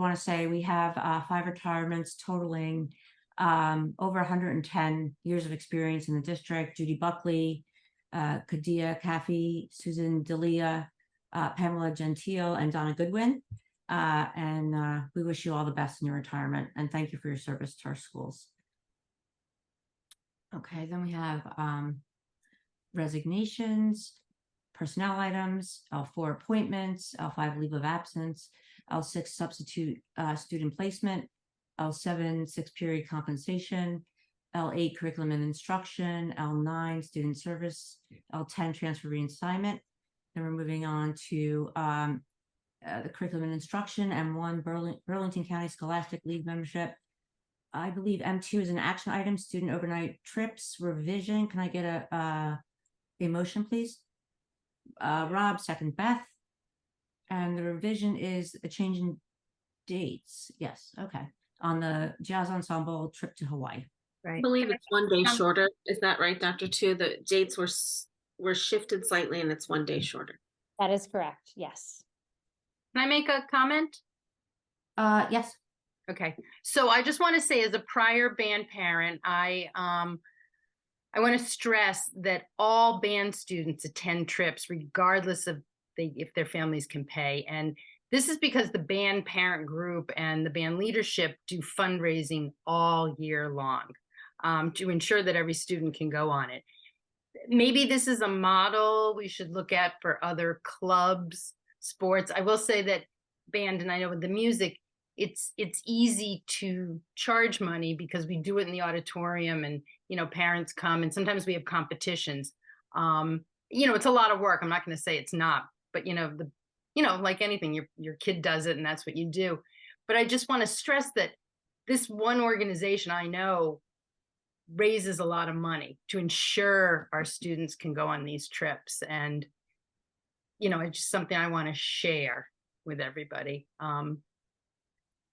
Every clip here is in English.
want to say we have uh, five retirements totaling um, over 110 years of experience in the district. Judy Buckley, uh, Kadia Caffey, Susan Dalia, uh, Pamela Gentile, and Donna Goodwin. Uh, and uh, we wish you all the best in your retirement and thank you for your service to our schools. Okay, then we have um, resignations, personnel items, L4 appointments, L5 leave of absence, L six substitute uh student placement, L seven six period compensation, L eight curriculum and instruction, L nine student service, L ten transfer reassignment. Then we're moving on to um uh, the curriculum and instruction, M one Burlington Burlington County Scholastic League membership. I believe M two is an action item, student overnight trips revision. Can I get a uh a motion, please? Uh, Rob, second Beth. And the revision is a change in dates. Yes, okay. On the jazz ensemble trip to Hawaii. Right. I believe it's one day Um, shorter. Is that right, Dr. Two? The dates were, s- were shifted slightly and it's one day shorter. That is correct, yes. Can I make a comment? Uh, yes, Okay, so I just want to say as a prior band parent, I, um, I want to stress that all band students attend trips regardless of they, if their families can pay. And this is because the band parent group and the band leadership do fundraising all year long um, to ensure that every student can go on it. Maybe this is a model we should look at for other clubs, sports. I will say that band, and I know with the music, it's it's easy to charge money because we do it in the auditorium and you know parents come and sometimes we have competitions um you know it's a lot of work i'm not going to say it's not but you know the you know like anything your your kid does it and that's what you do but i just want to stress that this one organization i know raises a lot of money to ensure our students can go on these trips and you know it's just something i want to share with everybody um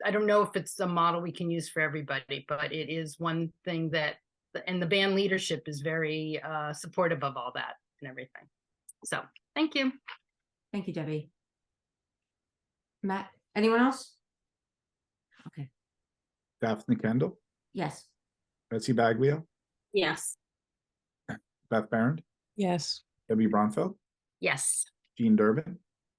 I don't know if it's a model we can use for everybody, but it is one thing that, and the band leadership is very uh, supportive of all that and everything. So, thank you. thank you, Debbie. Matt, anyone else? Daphne Kendall, Yes, Betsy Baglia, Yes, Beth Baron, Yes, Debbie Bronfeld, Yes, Jean Durbin,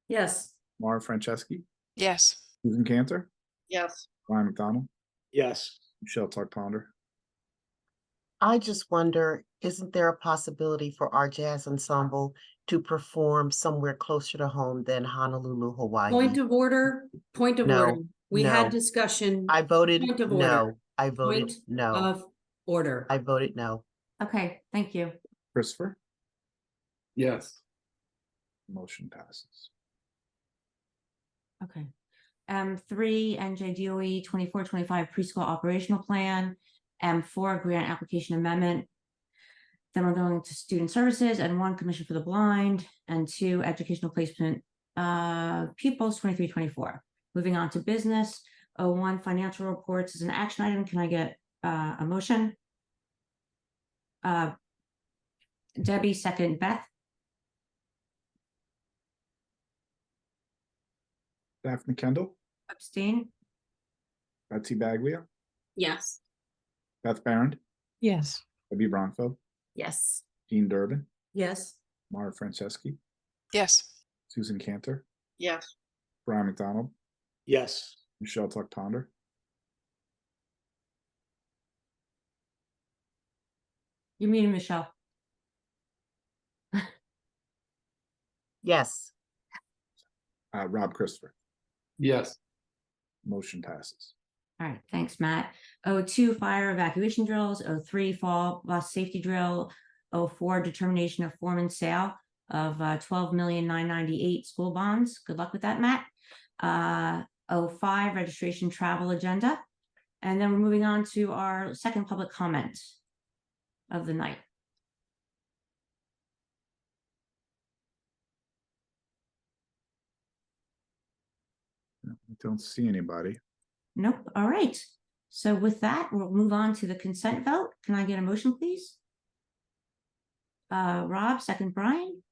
Yes. Mara Franceschi, Yes, Susan Cantor, Yes. Ryan McDonald, Yes, Michelle Tuck Ponder. I just wonder, isn't there a possibility for our jazz ensemble to perform somewhere closer to home than Honolulu, Hawaii? Point of order, point of No, order. We had no. discussion I voted Point of order. no. I voted Point no. of order. I voted no. okay, thank you. Christopher, yes, motion passes. Okay. M three, NJDOE E, twenty-four, twenty-five preschool operational plan, M four grant application amendment. Then we're going to student services and one commission for the blind and two educational placement uh pupils twenty-three, twenty-four. Moving on to business, O one financial reports is an action item. Can I get uh a motion? Uh Debbie, second Beth, Daphne Kendall, abstain, Betsy Baglia, yes, Beth Baron, yes, Debbie Bronfeld, yes, Jean Durbin, Yes. Mara Franceschi, yes, Susan Cantor, Yes. Brian McDonald, yes, Michelle Tuck Ponder. you're muted, Michelle. Yes, Uh, Rob Christopher, yes, motion passes. All right, thanks, Matt. O two fire evacuation drills, O three fall bus safety drill, O four determination of form and sale of uh twelve million nine ninety-eight school bonds. Good luck with that, Matt. Uh, O five registration travel agenda. And then we're moving on to our second public comment of the night. I don't see anybody. Nope, all right. So with that, we'll move on to the consent vote. Can I get a motion, please? Uh, Rob, second Brian,